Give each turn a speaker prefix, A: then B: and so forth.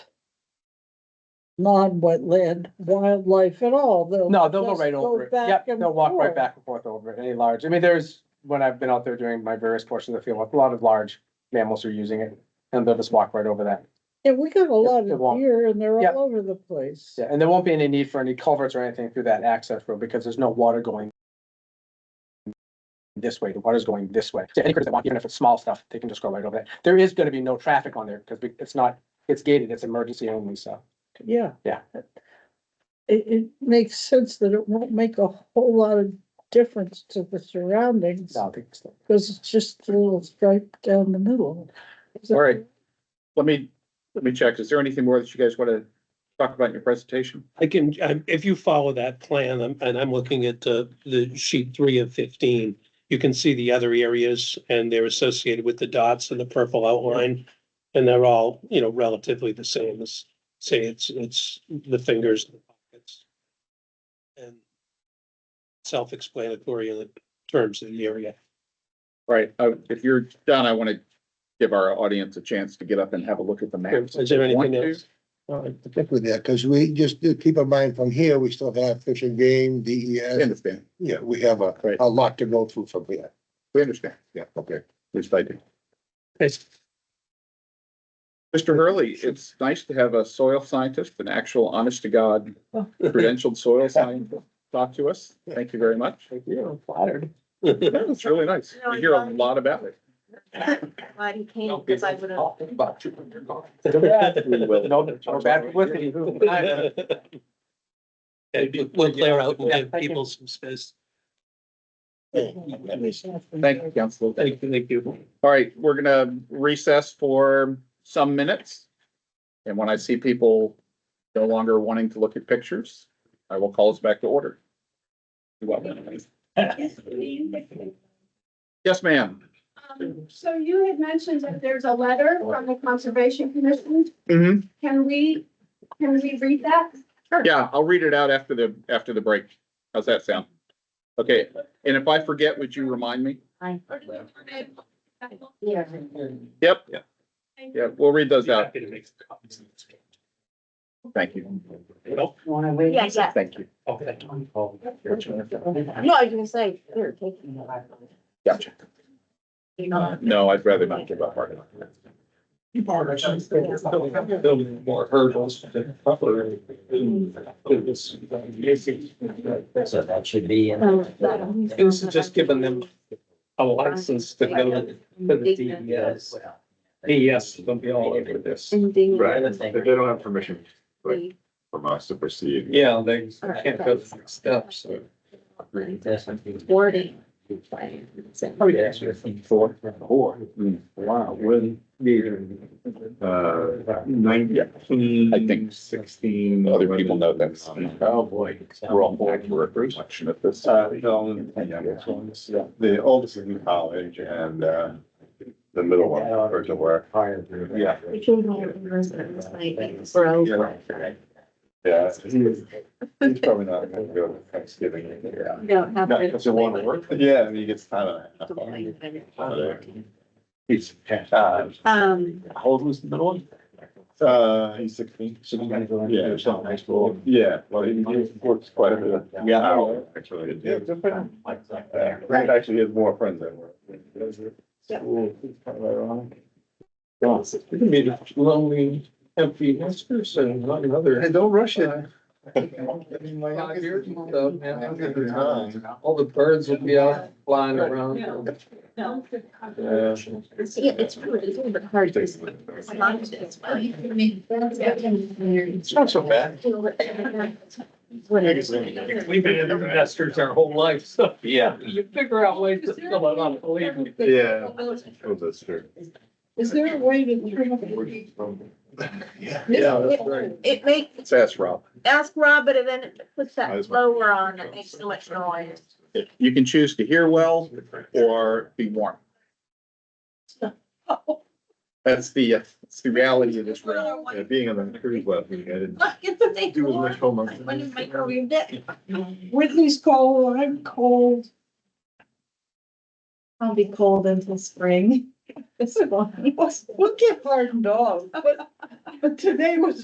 A: non-wetland wildlife at all, they'll.
B: No, they'll go
A: just
B: right over it.
A: back
B: Yep,
A: and
B: they'll walk right
A: forth.
B: back and forth over it, any large. I mean, there's, when I've been out there doing my various portions of the field, a lot of large mammals are using it. And they'll just walk right over that.
A: Yeah, we got a lot
B: they
A: of
B: won't.
A: deer and they're
B: Yep.
A: all over the place.
B: Yeah, and there won't be any need for any culverts or anything through that access road because there's no water going this way, the water's going this way. So any critters that want, even if it's small stuff, they can just go right over that. There is gonna be no traffic on there because it's not, it's gated, it's emergency only, so.
A: Yeah.
B: Yeah.
A: It, it makes sense that it won't make a whole lot of difference to the surroundings,
B: no, I think so.
A: because it's just a little stripe down the middle. Is that
C: All right. Let me, let me check. Is there anything more that you guys want to talk about in your presentation?
D: I can, um, if you follow that plan, um, and I'm looking at uh, the sheet three of fifteen, you can see the other areas and they're associated with the dots and the purple outline. And they're all, you know, relatively the same as, say, it's, it's the fingers and the pockets. And self-explanatory in the terms of the area.
C: Right, uh, if you're done, I want to give our audience a chance to get up and have a look at the map.
D: Is there anything
C: Want to?
D: else? All right.
E: with that, because we just do keep in mind from here, we still have Fish and Game,
C: We
E: DES.
C: understand,
E: Yeah, we have a,
C: Right.
E: a lot to go through from here.
C: we understand.
E: Yeah, okay.
C: At least I do.
D: It's-
C: Mr. Hurley, it's nice to have a soil scientist, an actual honest to God credentialed soil scientist talk to us. Thank you very much.
B: Thank you, I'm flattered.
C: That was really nice. We hear a lot about it.
F: Glad he came because I would have.
B: No, no bad publicity.
D: Okay, We'll clear out and give people some space.
C: Thank you, Council.
D: Thank you, thank you.
C: All right, we're gonna recess for some minutes. And when I see people no longer wanting to look at pictures, I will call us back to order. You're welcome. Yes, ma'am.
G: Um, So you had mentioned that there's a letter from the Conservation Commission.
C: Mm-hmm.
G: Can we, can we read that?
C: Yeah, I'll read it out after the, after the break. How's that sound? Okay, and if I forget, would you remind me?
G: Or do we want it-
F: Yeah.
C: Yep,
G: Thank
C: yeah, we'll read those out.
D: Happy to make the copies of this.
C: Thank you.
D: Nope.
F: Wanna wait? Yeah, yeah.
C: Thank you.
D: Okay.
F: No, I was gonna say, here, take.
C: Gotcha.
F: You know,
C: No, I'd rather not give up hard enough.
D: You borrow. Building more hurdles.
H: So that should be in.
F: um, that-
D: This is just giving them a license to go, the DES. yes, they'll be all over this.
F: Indignant.
H: Right.
I: They don't have permission from us to proceed.
D: Yeah, they can't go the next step, so.
F: Wording.
I: Oh, yeah. Four. Four. Wow, when uh, nineteen.
C: I think
I: sixteen.
C: Other people know that.
I: Oh, boy.
C: We're all accurate reflection of this.
I: Uh, no, yeah, the oldest is in college and, uh, the middle one, or to work. Yeah.
F: We came home from Brisbane, it was like, bro.
I: Yeah. Yeah, he's, he's probably not gonna go to Thanksgiving. Yeah.
F: You Don't have.
I: No, because it won't work. Yeah, and he gets time on it.
F: to-
I: He's, uh,
F: Um,
I: how old was the middle one? Uh, he's sixteen. Yeah. Yeah, well, he he works quite a bit.
H: Yeah.
I: Hour, Actually.
H: Yeah,
I: Uh, he Actually, has more friends than work.
F: Yeah.
I: School, it's kind of ironic.
D: You're gonna be lonely, empty nesters and not another.
I: don't rush it.
D: Five years and stuff, man, I'm gonna be gone. All the birds will be out flying around.
F: no,
B: uh,
I: Yeah.
F: it's, yeah, it's really, it's a little bit hard to. It's not just- it's well, you can make-
I: It's not so bad.
F: What it is.
D: We've been in investors our whole life, so
I: Yeah.
D: you figure out ways to fill it out, believe me.
I: Yeah. Oh, that's true.
A: Is there a way that you can?
I: Yeah.
C: Yeah, that's right.
F: It makes
C: Let's ask Rob.
F: ask Rob, but then it puts
I: Might
F: that
I: as well.
F: lower on, it makes so much noise.
C: You can choose to hear well or be warm. That's the, uh, that's the reality of this room.
I: Yeah, being on the cruise last week, I didn't
F: It's a big
I: do as much
F: one.
I: homework.
F: When you microwaved it,
A: Whitney's cold, I'm cold.
F: I'll be cold until spring. This one.
A: We'll get pardoned off, but, but today was